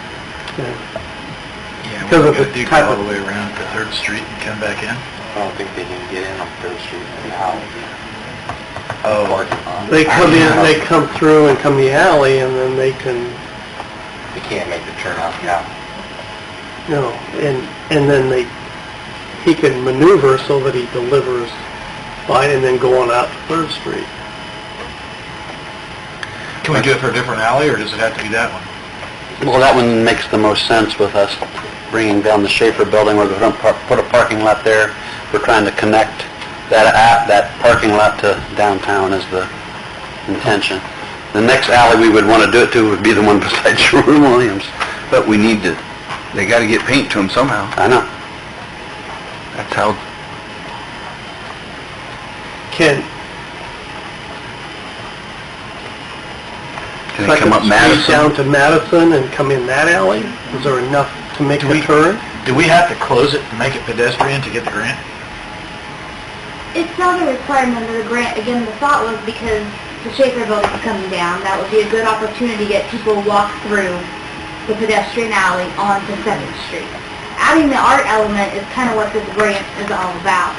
understand. Yeah, Because we're of the gonna dig type all of- the way around to Third Street and come back in? I don't think they can get in on Third Street Um, and out. Oh, Parking lot. They come in, they come through and come the alley, and then they can, They can't make the turn off now. you know, and, and then they, he can maneuver so that he delivers by, and then go on out to Third Street. can we do it for a different alley, or does it have to be that one? Well, that one makes the most sense with us bringing down the Schaefer building. We're going to put a parking lot there. We're trying to connect that app, that parking lot to downtown is the intention. The next alley we would want to do it to would be the one beside Sherwin Williams. But we need to, they got to get paint to them somehow. I know. That's how Can, Can like, squeeze down to Madison and come in that alley? Is there enough to make Do a we- turn? Do we have to close it and make it pedestrian to get the grant? It's not a requirement of the grant, again, the thought was because the Schaefer building's coming down, that would be a good opportunity to get people to walk through the pedestrian alley onto Seventh Street. Adding the art element is kind of what this grant is all about.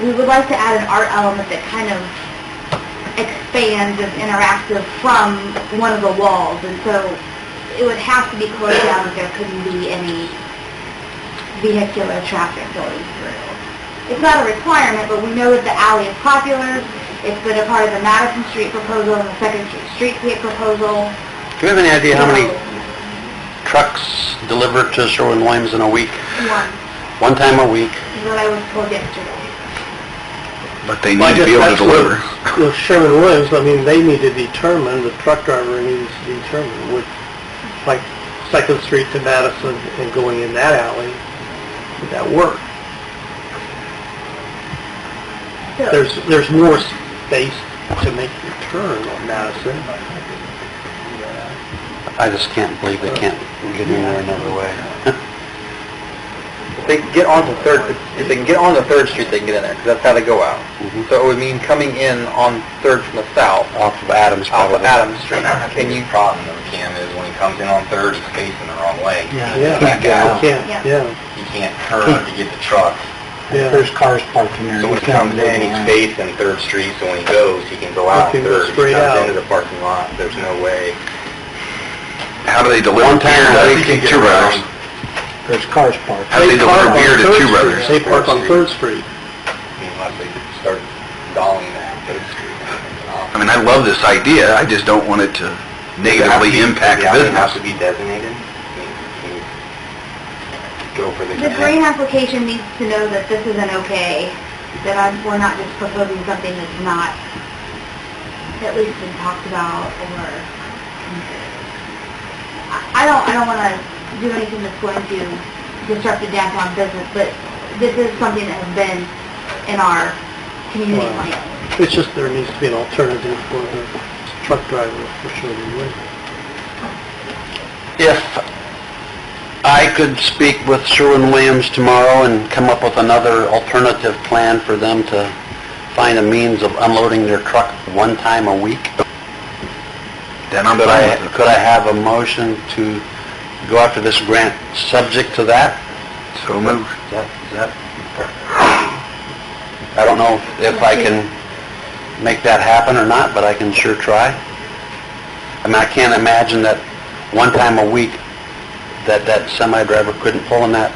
We would like to add an art element that kind of expands and interactive from one of the walls, and so it would have to be closed down if there couldn't be any vehicular traffic going through. It's not a requirement, but we know that the alley is popular. It's been a part of the Madison Street proposal and the Second Street Streetscape proposal. Do you have any idea how many trucks deliver to Sherwin-Williams in a week? One, One time a week? is what I was told yesterday. But they I guess that's what- With Sherman-Williams, I mean, they need to determine, the truck driver needs to determine which, like, Second Street to Madison and going in that alley, would that work? So- There's, there's more space to make your turn on Madison. I just can't believe they can't get in there another way. If they can get onto Third, if they can get onto Third Street, they can get in there, because that's how they go out. So it would mean coming in on Third from the south. Off of Adams, probably. Off of Adams Street. Can you... problem, though, Kim, is when he comes in on Third, he's facing the wrong way. Yeah. Yeah. Back out. Yeah, yeah, He can't turn to get the truck. yeah. cars parked in there. So when he comes in, he's facing Third Street, so when he goes, he can go out He can go Third. He straight comes out. into the parking lot, there's no way. How do they deliver One time beer a to week you to get Two Brothers? around. There's cars parked. How do they park deliver on beer to Two Third Street. Brothers? They park on Third Street. Unless they start dolling that Third Street. I mean, I love this idea, I just don't want it to negatively impact Has business. to be designated? Can you Go for the... The grant application needs to know that this is an okay, that I'm, we're not just proposing something that's not at least been talked about or considered. I- I don't, I don't wanna do anything that's going to disrupt the downtown business, but this is something that has been in our community Wow. plan. It's just there needs to be an alternative for the truck driver, for Sherman-Williams. If I could speak with Sherwin-Williams tomorrow and come up with another alternative plan for them to find a means of unloading their truck one time a week, Then I'm could fine I, with it. could I have a motion to go after this grant subject to that? So moved. Is that- is that- I don't know if I can make that happen or not, but I can sure try. I mean, I can't imagine that one time a week, that that semi driver couldn't pull in that,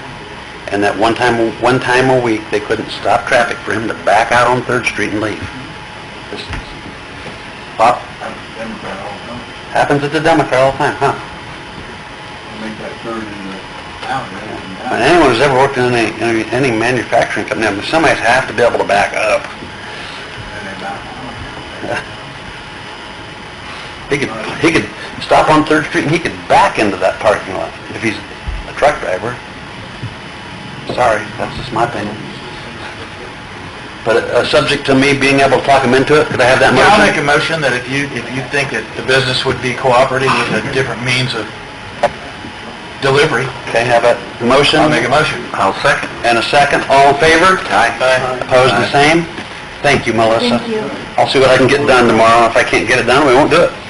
and that one time, one time a week, they couldn't stop traffic for him to back out on Third Street and leave. This- Pop, happens at the Democrat all the time, huh? Make that turn in the And anyone who's ever worked in any, any- any manufacturing company, I mean, somebody's have to be able to back up. He could, he could stop on Third Street and he could back into that parking lot if he's a truck driver. Sorry, that's just my opinion. But, uh, subject to me being able to talk him into it, could I have that Yeah, I'll motion? make a motion that if you, if you think that the business would be cooperating with a different means of delivery, Okay, have a motion? I'll make a motion. I'll second. And a second, all in favor? Aye. Opposed, the same? Thank you, Melissa. Thank you. I'll see what I can get done tomorrow, if I can't get it done, we won't do it.